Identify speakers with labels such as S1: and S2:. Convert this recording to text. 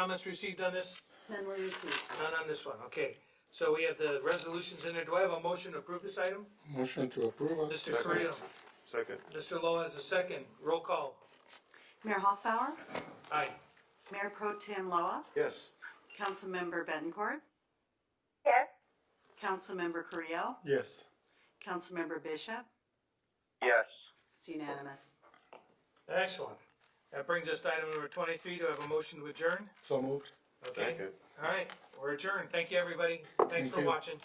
S1: Comments received on this?
S2: None were received.
S1: None on this one, okay. So we have the resolutions in there. Do I have a motion to approve this item?
S3: Motion to approve.
S1: Mr. Carrillo,
S4: Second.
S1: Mr. Lowe has a second. Roll call.
S2: Mayor Hoffbauer,
S1: Aye.
S2: Mayor Pro Tem Loa,
S4: Yes.
S2: Councilmember Betancourt,
S5: yes,
S2: Councilmember Carrillo,
S3: Yes.
S2: Councilmember Bishop.
S4: Yes.
S2: It's unanimous.
S1: Excellent. That brings us to item number twenty-three. Do I have a motion to adjourn?
S3: So moved.
S1: Okay.
S4: Second.
S1: All right, we're adjourned. Thank you, everybody. Thanks
S3: Thank
S1: for
S3: you.
S1: watching.